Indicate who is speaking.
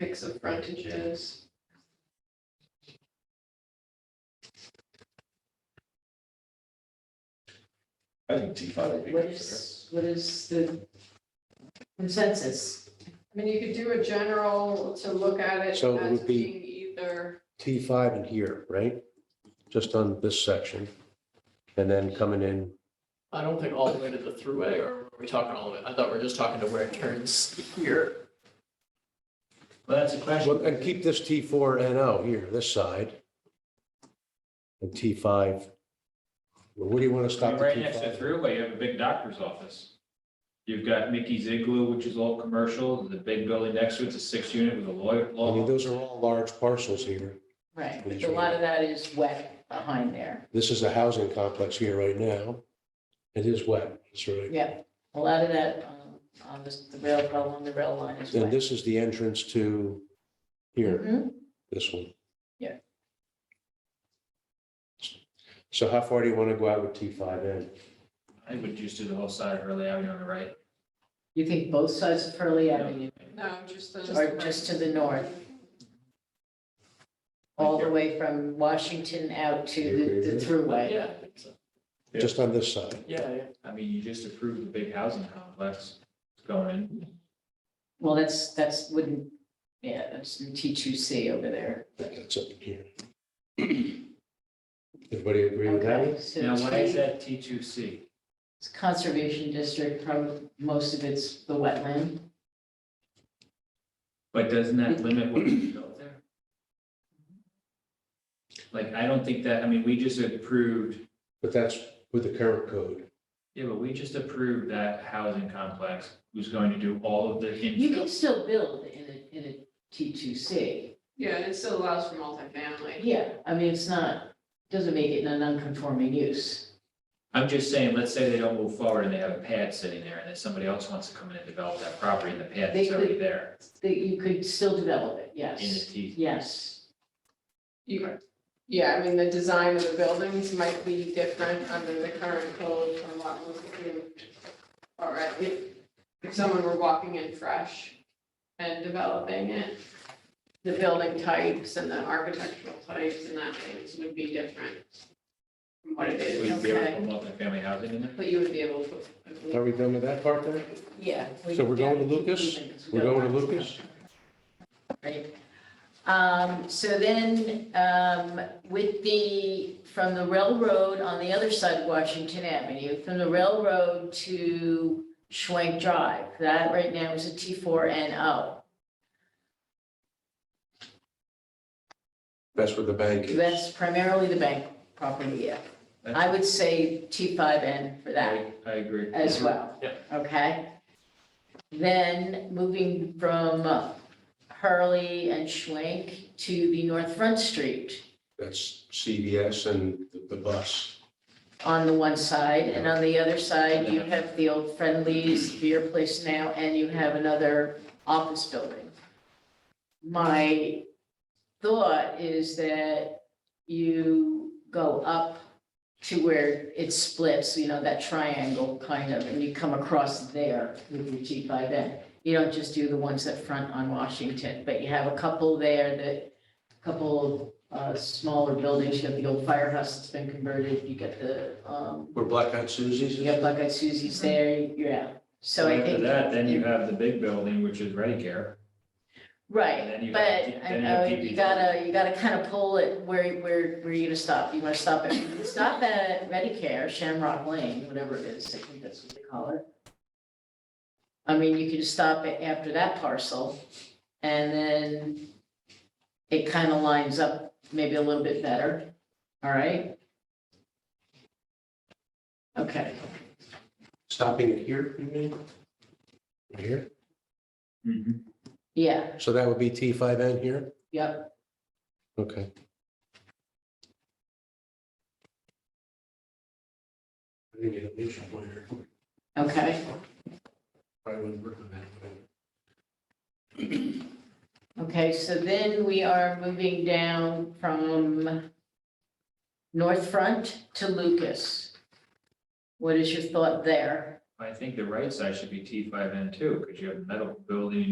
Speaker 1: mix of frontages.
Speaker 2: I think T
Speaker 3: Oh,
Speaker 2: five would be
Speaker 4: What
Speaker 2: good for her.
Speaker 4: is, what is the consensus?
Speaker 1: I mean, you could do a general to look at it
Speaker 3: So it
Speaker 1: as
Speaker 3: would be-
Speaker 1: being either,
Speaker 3: T five in here, right? Just on this section. And then coming in,
Speaker 5: I don't think all the way to the throughway, or are we talking all the way? I thought we were just talking to where it turns here.
Speaker 4: Well, that's a
Speaker 3: well, and keep this T four N O here, this side. And T five. Well, where do you want to
Speaker 6: I
Speaker 3: stop
Speaker 6: mean,
Speaker 3: the
Speaker 6: Right
Speaker 3: T
Speaker 6: next to
Speaker 3: five?
Speaker 6: Thruway, you have a big doctor's office. You've got Mickey's Igloo, which is all commercial, and the big building next to it's a six unit with a lawyer,
Speaker 3: I mean,
Speaker 6: law.
Speaker 3: those are all large parcels here.
Speaker 4: Right, but a lot of that is wet behind there.
Speaker 3: This is a housing complex here right now. It is wet, that's right.
Speaker 4: Yeah, a lot of that um, on this- the rail, along the rail line is
Speaker 3: And
Speaker 4: wet.
Speaker 3: this is the entrance to here,
Speaker 4: Mhm.
Speaker 3: this one.
Speaker 4: Yeah.
Speaker 3: So how far do you want to go out with T five N?
Speaker 6: I would just do the whole side of Hurley Avenue on the right.
Speaker 4: You think both sides of Hurley Avenue,
Speaker 1: no, just the.
Speaker 4: Or just to the north. all the way from Washington out to the, the thruway?
Speaker 5: Yeah, I think so.
Speaker 6: Yeah.
Speaker 3: Just on this side?
Speaker 5: Yeah, yeah.
Speaker 6: I mean, you just approved the big housing complex going in.
Speaker 4: Well, that's, that's, wouldn't, yeah, that's in T2C over there.
Speaker 3: That's up here. Everybody agree with that?
Speaker 4: Okay,
Speaker 3: one?
Speaker 4: so
Speaker 6: Now, why is
Speaker 4: T-
Speaker 6: that T two C?
Speaker 4: it's Conservation district, from most of it's the wetland.
Speaker 6: But doesn't that limit what you built there? Like, I don't think that, I mean, we just approved,
Speaker 3: But that's with the current code.
Speaker 6: yeah, but we just approved that housing complex who's going to do all of the
Speaker 4: You can
Speaker 6: infill.
Speaker 4: still build in a, in a T2C.
Speaker 1: Yeah, and it still allows for multifamily.
Speaker 4: Yeah, I mean, it's not, doesn't make it a non-conforming use.
Speaker 6: I'm just saying, let's say they don't move forward and they have a pad sitting there and then somebody else wants to come in and develop that property and the pad
Speaker 4: They
Speaker 6: is already
Speaker 4: could-
Speaker 6: there
Speaker 4: That you could still develop it,
Speaker 6: in the
Speaker 4: yes,
Speaker 6: T.
Speaker 4: yes.
Speaker 1: You, yeah, I mean, the design of the buildings might be different under the current code from what was approved. All right, if, if someone were walking in fresh and developing it, the building types and the architectural types and that things would be different from what it
Speaker 6: Would
Speaker 1: is,
Speaker 6: you be able to
Speaker 4: Okay.
Speaker 6: put multifamily housing in there?
Speaker 1: but you would be able to.
Speaker 3: Are we done with that part there?
Speaker 4: Yeah.
Speaker 3: So we're going to Lucas? We're going to Lucas?
Speaker 4: Right. Um, so then, um, with the, from the railroad on the other side of Washington Avenue, from the railroad to Schwank Drive, that right now is a T four N O.
Speaker 3: That's where the bank is.
Speaker 4: That's primarily the bank property, yeah.
Speaker 6: That's-
Speaker 4: I would say T five N for that.
Speaker 6: I I agree.
Speaker 4: as well.
Speaker 5: Yeah.
Speaker 4: Okay? Then moving from Hurley and Schwank to the North Front Street
Speaker 3: That's CVS and the- the bus.
Speaker 4: on the one side, and on the other side, you have the old Friendlies beer place now, and you have another office building. My thought is that you go up to where it splits, you know, that triangle kind of, and you come across there with your G five N. You don't just do the ones that front on Washington, but you have a couple there that, a couple uh, smaller buildings, you have the old firehouse that's been converted, you get the, um,
Speaker 3: Where Black Eyed Susie's
Speaker 4: you
Speaker 3: is?
Speaker 4: have Black Eyed Susie's there, yeah. So I
Speaker 6: After
Speaker 4: think,
Speaker 6: that, then you have the big building, which is Ready Care. And then
Speaker 4: right,
Speaker 6: you
Speaker 4: but
Speaker 6: have-
Speaker 4: I
Speaker 6: then you have
Speaker 4: know
Speaker 6: TV.
Speaker 4: you gotta, you gotta kind of pull it where, where, where you gonna stop, you wanna stop at, stop at Medicare, Shamrock Lane, whatever it is, I think that's what they call it. I mean, you can stop it after that parcel, and then it kind of lines up maybe a little bit better, all right? Okay.
Speaker 3: Stopping it here, you mean? Right Here?
Speaker 4: Yeah,
Speaker 3: So that would be T five N here?
Speaker 4: yep.
Speaker 3: Okay. I think it'll be somewhere.
Speaker 4: Okay,
Speaker 3: Probably wouldn't work on that, but-
Speaker 4: okay, so then we are moving down from North Front to Lucas. What is your thought there?
Speaker 6: I think the right side should be T five N two, because you have the metal building,